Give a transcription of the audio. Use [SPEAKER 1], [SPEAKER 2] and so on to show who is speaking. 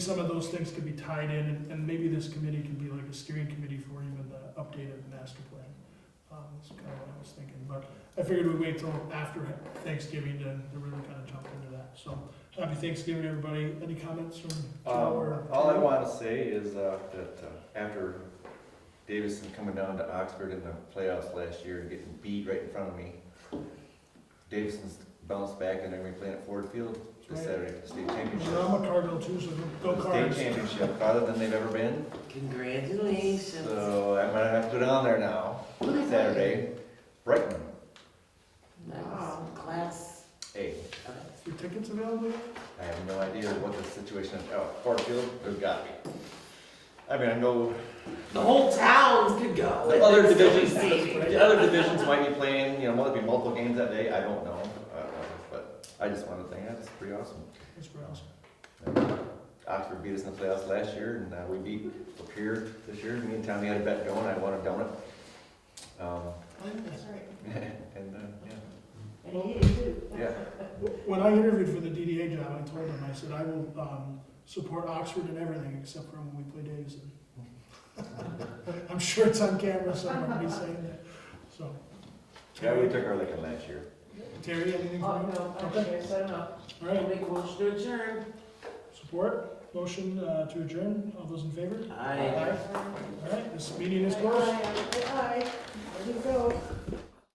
[SPEAKER 1] some of those things could be tied in, and- and maybe this committee can be like a steering committee for even the updated master plan. Um, That's kind of what I was thinking, but I figured we'd wait till after Thanksgiving to, to really kind of jump into that. So, happy Thanksgiving, everybody. Any comments from Joe
[SPEAKER 2] Um,
[SPEAKER 1] or?
[SPEAKER 2] all I want to say is, uh, that, uh, after Davidson coming down to Oxford in the playoffs last year and getting beat right in front of me, Davison's bounced back and they're gonna be playing at Ford Field this
[SPEAKER 1] Right.
[SPEAKER 2] Saturday for the state
[SPEAKER 1] Well,
[SPEAKER 2] championship.
[SPEAKER 1] I'm a Cardinal too, so go
[SPEAKER 2] The
[SPEAKER 1] Cards.
[SPEAKER 2] State championship, farther than they've ever been,
[SPEAKER 3] Congratulations.
[SPEAKER 2] so I might have to go down there now, Saturday, Brighton,
[SPEAKER 3] Wow, class.
[SPEAKER 2] A.
[SPEAKER 1] Is Your tickets available?
[SPEAKER 2] I have no idea what the situation is, oh, Ford Field, there's gotta be. I mean, I know
[SPEAKER 3] The whole town could go.
[SPEAKER 2] The other divisions,
[SPEAKER 3] Saving.
[SPEAKER 2] the other divisions might be playing, you know, might be multiple games that day, I don't know, uh, but I just wanted to think, that's pretty awesome.
[SPEAKER 1] That's Browns.
[SPEAKER 2] Oxford beat us in the playoffs last year, and, uh, we beat Lapeer this year, me and Tommy had a bet going, I won a donut. Um, and, uh, yeah, yeah,
[SPEAKER 1] When I interviewed for the DDA job, I told them, I said, I will, um, support Oxford in everything except for when we play Davidson. I'm sure it's on camera somewhere, me saying that, so.
[SPEAKER 2] yeah, we took our licking last year.
[SPEAKER 1] Terry, anything
[SPEAKER 3] Oh,
[SPEAKER 1] from you?
[SPEAKER 3] no,
[SPEAKER 1] Okay.
[SPEAKER 3] okay, so no.
[SPEAKER 1] All right,
[SPEAKER 3] Make motion to adjourn.
[SPEAKER 1] support, motion, uh, to adjourn, all those in favor?
[SPEAKER 3] Aye.
[SPEAKER 1] All right, this meeting is closed.
[SPEAKER 4] Aye, aye, aye. There you go.